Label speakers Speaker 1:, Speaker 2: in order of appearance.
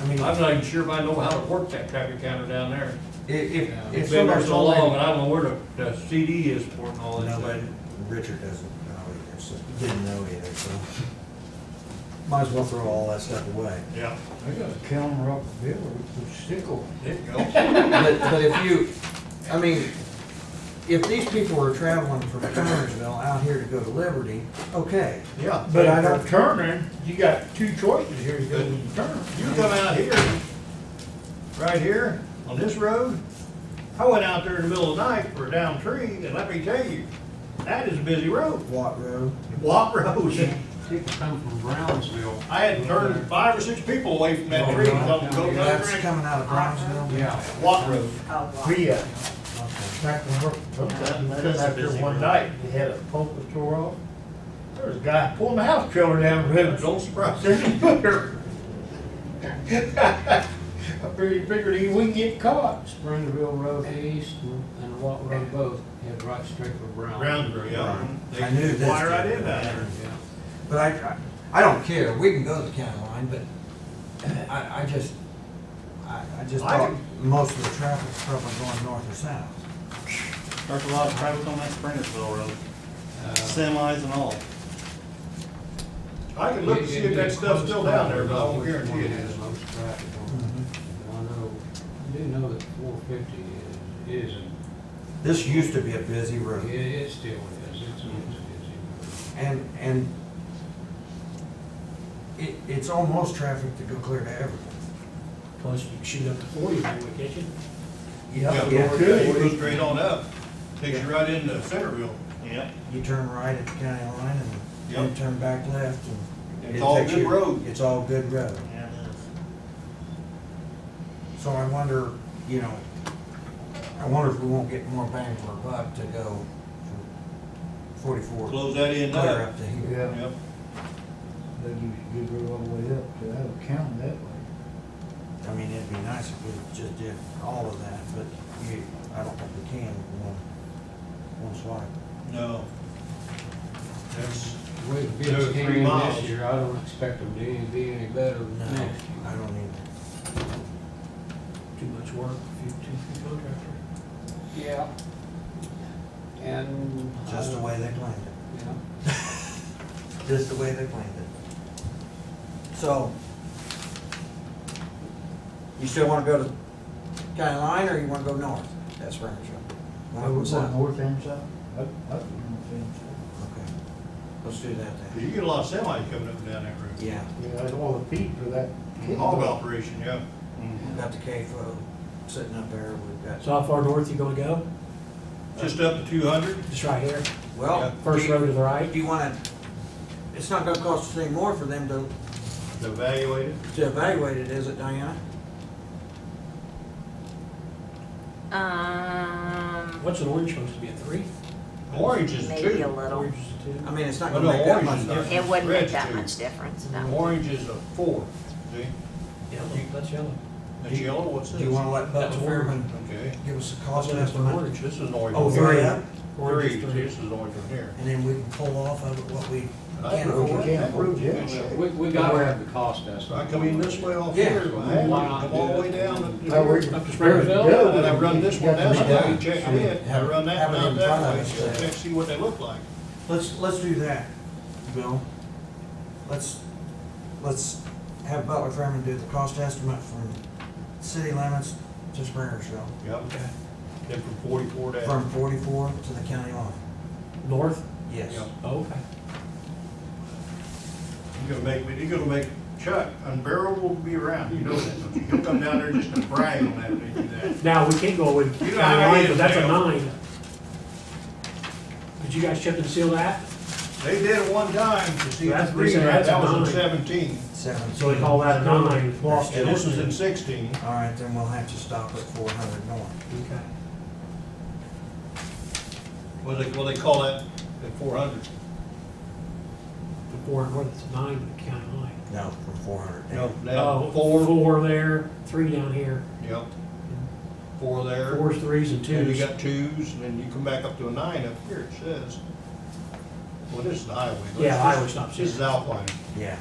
Speaker 1: I mean,
Speaker 2: I'm not even sure if I know how to work that traffic counter down there.
Speaker 1: if,
Speaker 3: Yeah.
Speaker 1: if, if
Speaker 2: It's been there
Speaker 1: somebody's
Speaker 2: so long, and
Speaker 1: online.
Speaker 2: I don't know where the, the CD is for it and all this.
Speaker 1: Nobody,
Speaker 2: stuff.
Speaker 1: Richard doesn't know either, so, didn't know either, so. Might as well throw all that stuff away.
Speaker 2: Yeah,
Speaker 3: I got a camera up there with a stickle.
Speaker 2: there you go.
Speaker 1: But, but if you, I mean, if these people were traveling from Connersville out here to go to Liberty, okay.
Speaker 2: Yeah.
Speaker 3: But I
Speaker 1: if
Speaker 3: don't
Speaker 1: they're
Speaker 3: turning, you got two choices here, you go and turn.
Speaker 2: You come out here, right here, on this road, I went out there in the middle of the night for a down tree, and let me tell you, that is a busy road.
Speaker 1: Watt Road,
Speaker 2: Walk road.
Speaker 4: People come from Brownsville.
Speaker 2: I had turned five or six people away from that tree, and told them, go another
Speaker 1: that's
Speaker 2: direction.
Speaker 1: coming out of Brownsville?
Speaker 4: Yeah.
Speaker 2: Walk road.
Speaker 3: We, uh,
Speaker 1: Okay.
Speaker 3: back when we're, sometimes we come out there one night, we had a poker tour off. There was a guy pulling the house trailer down the road.
Speaker 2: Don't surprise me.
Speaker 3: There's a footer. I figured, figured he wouldn't get caught.
Speaker 4: Springerville Road East and- and Watt Road both head right straight for Brown.
Speaker 2: Brownsville, yeah.
Speaker 1: I knew
Speaker 2: They
Speaker 1: this
Speaker 2: fly right
Speaker 1: dude.
Speaker 2: in down there.
Speaker 4: Yeah.
Speaker 1: But I, I I don't care, we can go to the county line, but uh, I, I just, I, I just
Speaker 2: I
Speaker 1: thought most of the traffic's probably going north or south.
Speaker 5: There's a lot of traffic on that Springersville road,
Speaker 4: Uh,
Speaker 5: semis and all.
Speaker 2: I can look and see if that stuff's still down there, but I won't guarantee it
Speaker 4: Which one
Speaker 2: is.
Speaker 4: has most traffic on it?
Speaker 2: Mm-hmm.
Speaker 4: I know, I do know that four fifty is, is,
Speaker 1: This used to be a busy
Speaker 4: it,
Speaker 1: road,
Speaker 4: it still is, it's, it's busy.
Speaker 1: and, and it, it's almost traffic to go clear to Everett.
Speaker 6: Plus, you can shoot up to forty if you would, can't you?
Speaker 2: Yeah,
Speaker 1: Yeah,
Speaker 2: Lord,
Speaker 3: good.
Speaker 2: You go straight on up, takes you right into Centerville.
Speaker 5: Yep.
Speaker 1: you turn right at the county line and then
Speaker 2: Yep.
Speaker 1: turn back left and.
Speaker 2: It's
Speaker 1: it
Speaker 2: all
Speaker 1: takes
Speaker 2: good
Speaker 1: you-
Speaker 2: road.
Speaker 1: It's all good road.
Speaker 5: Yeah, it is.
Speaker 1: So I wonder, you know, I wonder if we won't get more bang for a buck to go from forty-four
Speaker 2: Close that end
Speaker 1: clear
Speaker 2: up.
Speaker 1: up to here.
Speaker 3: Yeah,
Speaker 2: Yep.
Speaker 3: then you should get her all the way up to Allen County that way.
Speaker 1: I mean, it'd be nice if we just did all of that, but you, I don't think we can with one, one swipe.
Speaker 2: No. That's,
Speaker 4: With
Speaker 2: There were
Speaker 4: bids
Speaker 2: three
Speaker 4: came in
Speaker 2: miles.
Speaker 4: this year, I don't expect them to any- be any better than
Speaker 1: No,
Speaker 4: next
Speaker 1: I
Speaker 4: year.
Speaker 1: don't either.
Speaker 6: Too much work, few, too few contractors.
Speaker 4: Yeah. And. I
Speaker 1: Just the
Speaker 4: don't-
Speaker 1: way they planned it,
Speaker 4: Yeah.
Speaker 1: just the way they planned it. So, you still wanna go to county line or you wanna go north? That's where I'm sure.
Speaker 3: I would want north and south. I, I would want north and south.
Speaker 1: Okay, let's do that then.
Speaker 2: you get a lot of semis coming up and down that road.
Speaker 1: Yeah,
Speaker 3: Yeah, that's all the feed for that. kid.
Speaker 2: Hog operation, yeah.
Speaker 1: we've got the CAFO sitting up there, we've got,
Speaker 6: So how far north you gonna go?
Speaker 2: Just up to two hundred.
Speaker 6: Just right here,
Speaker 1: well.
Speaker 2: Yeah.
Speaker 6: first
Speaker 1: do you-
Speaker 6: row to the
Speaker 1: Do
Speaker 6: right?
Speaker 1: you wanna, it's not gonna cost us any more for them to,
Speaker 2: Evaluate it.
Speaker 1: to evaluate it, is it Diana?
Speaker 7: Um,
Speaker 6: What's an orange supposed to be, a three?
Speaker 2: Orange is
Speaker 7: maybe a
Speaker 2: two.
Speaker 7: little.
Speaker 6: Orange is a
Speaker 1: I
Speaker 6: two?
Speaker 1: mean, it's not
Speaker 2: Well,
Speaker 1: gonna
Speaker 2: no,
Speaker 1: make that
Speaker 2: orange
Speaker 1: much
Speaker 2: is not.
Speaker 1: difference.
Speaker 7: It wouldn't
Speaker 2: Red's
Speaker 7: make that
Speaker 2: two.
Speaker 7: much difference, no.
Speaker 2: Orange is a four. See,
Speaker 6: Yellow, that's yellow.
Speaker 2: that's yellow, what's this?
Speaker 1: Do you wanna let
Speaker 6: That's
Speaker 1: Butler Fairman
Speaker 2: Okay.
Speaker 1: give us a
Speaker 6: That's
Speaker 1: cost
Speaker 6: an
Speaker 1: estimate?
Speaker 6: orange.
Speaker 2: This is an orange.
Speaker 1: Oh,
Speaker 2: one
Speaker 1: three
Speaker 2: here.
Speaker 1: up,
Speaker 6: Orange
Speaker 2: Three,
Speaker 6: is three.
Speaker 2: this is an orange one here.
Speaker 1: and then we can pull off of it what we
Speaker 2: I
Speaker 1: can
Speaker 2: agree.
Speaker 3: Well, you
Speaker 1: afford.
Speaker 3: can't prove it.
Speaker 4: We, we gotta have the cost estimate.
Speaker 2: So I come in this way off
Speaker 1: Yeah.
Speaker 2: here, I have to come all the way down. to-
Speaker 3: How we-
Speaker 4: Up to Springerville?
Speaker 3: Yeah.
Speaker 2: And I run this one down, so I
Speaker 1: Yeah.
Speaker 2: check it, I run that
Speaker 1: Have it
Speaker 2: down
Speaker 1: in
Speaker 2: that
Speaker 1: front
Speaker 2: way,
Speaker 1: of
Speaker 2: so
Speaker 1: us.
Speaker 2: check, see what they look like.
Speaker 1: Let's, let's do that, Bill. Let's, let's have Butler Fairman do the cost estimate from city limits to Springersville,
Speaker 2: Yep. Then from forty-four down.
Speaker 1: from forty-four to the county line.
Speaker 6: North?
Speaker 1: Yes.
Speaker 2: Yep.
Speaker 6: Oh, Okay.
Speaker 2: You're gonna make, me. you're gonna make Chuck unbearable to be around, you know that, don't you? He'll come down there just to brag on that, when you do that.
Speaker 6: Now, we can't go with
Speaker 2: You
Speaker 6: county
Speaker 2: know how it
Speaker 6: line,
Speaker 2: is,
Speaker 6: but that's a
Speaker 2: Dale.
Speaker 6: nine. Did you guys chip and seal that?
Speaker 2: They did it one time to see
Speaker 6: That's-
Speaker 2: the green,
Speaker 6: that's
Speaker 2: that was in
Speaker 6: nine.
Speaker 2: seventeen,
Speaker 1: Seven.
Speaker 6: So we call that a nine.
Speaker 1: Lost
Speaker 2: and this was in sixteen.
Speaker 1: All right, then we'll have to stop at four hundred north.
Speaker 6: Okay.
Speaker 2: What they, what they call that, the four hundred?
Speaker 6: The four and north, it's a nine in the county line.
Speaker 1: No, from four hundred
Speaker 2: No,
Speaker 1: down.
Speaker 2: now,
Speaker 6: Oh,
Speaker 2: four,
Speaker 6: Four there, three down here.
Speaker 2: yep. Four there.
Speaker 6: Fours, threes, and
Speaker 2: Then you
Speaker 6: twos.
Speaker 2: got twos, and then you come back up to a nine up here, it says. Well, this is the highway.
Speaker 6: Yeah, highway stops
Speaker 2: This is
Speaker 6: here.
Speaker 2: Alpine.
Speaker 1: Yeah,